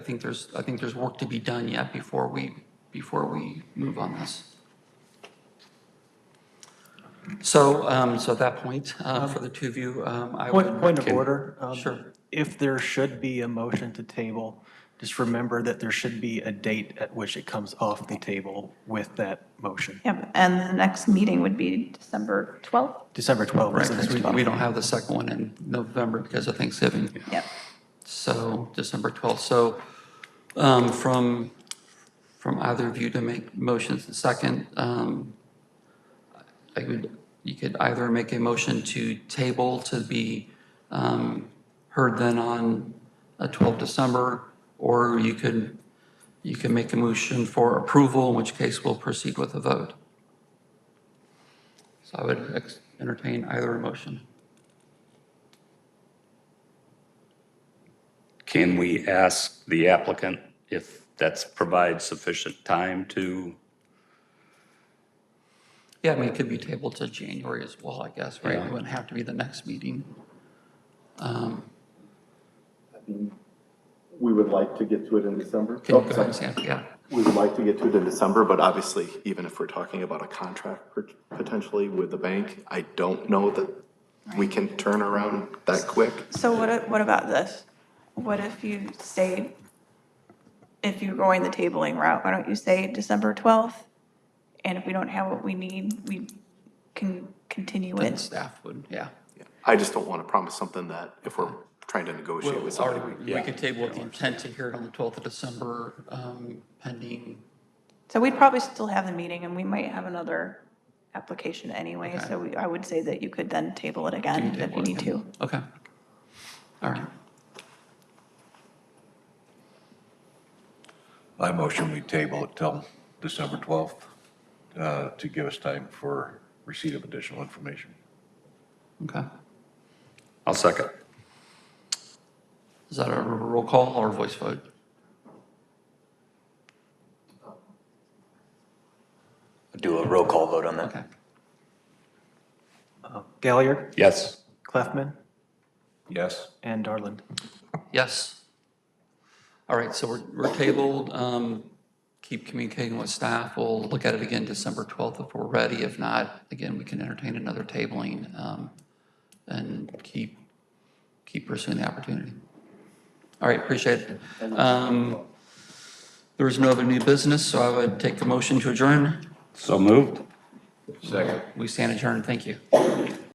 I think there's, I think there's work to be done yet before we, before we move on this. So, um, so at that point, uh, for the two of you, um, I would. Point, point of order. um, Sure. If there should be a motion to table, just remember that there should be a date at which it comes off the table with that motion. Yep, and the next meeting would be December 12th? December 12th is the next We one. we don't have the second one in November because of Thanksgiving. Yep. So December 12th. So um, from, from either of you to make motions and second, um, I could, you could either make a motion to table to be um, heard then on uh, 12 December, or you could, you can make a motion for approval, in which case we'll proceed with a vote. So I would ex- entertain either motion. Can we ask the applicant if that's provides sufficient time to? Yeah, I mean, it could be tabled to January as well, I guess, right? It wouldn't have to be the next meeting. We would like to get to it in December. Can you Oh, go ahead sorry. and say, it? yeah, We would like to get to it in December, but obviously, even if we're talking about a contract pot- potentially with the bank, I don't know that we can turn around that quick. So what, a- what about this? What if you say, if you're going the tabling route, why don't you say December 12th? And if we don't have what we need, we can continue then it. staff would, yeah. I just don't want to promise something that if we're trying to negotiate with somebody. Or we could table with the intent to hear it on the 12th of December, um, pending, So we'd probably still have the meeting and we might have another application anyway. So we- I would say that you could then table it again if you need to. okay. All right, I motion we table it till December 12th uh, to give us time for receipt of additional information. okay. I'll second. Is that a roll call or a voice vote? do a roll call vote on that. Okay, Galliard, Yes. Clefman, Yes. and Darland. yes. All right, so we're, we're tabled, um, keep communicating with staff, we'll look at it again December 12th if we're ready. If not, again, we can entertain another tabling, um, and keep, keep pursuing the opportunity. All right, appreciate it. Um, There is no other new business, so I would take a motion to adjourn. So moved. Second. We stand adjourned. Thank you.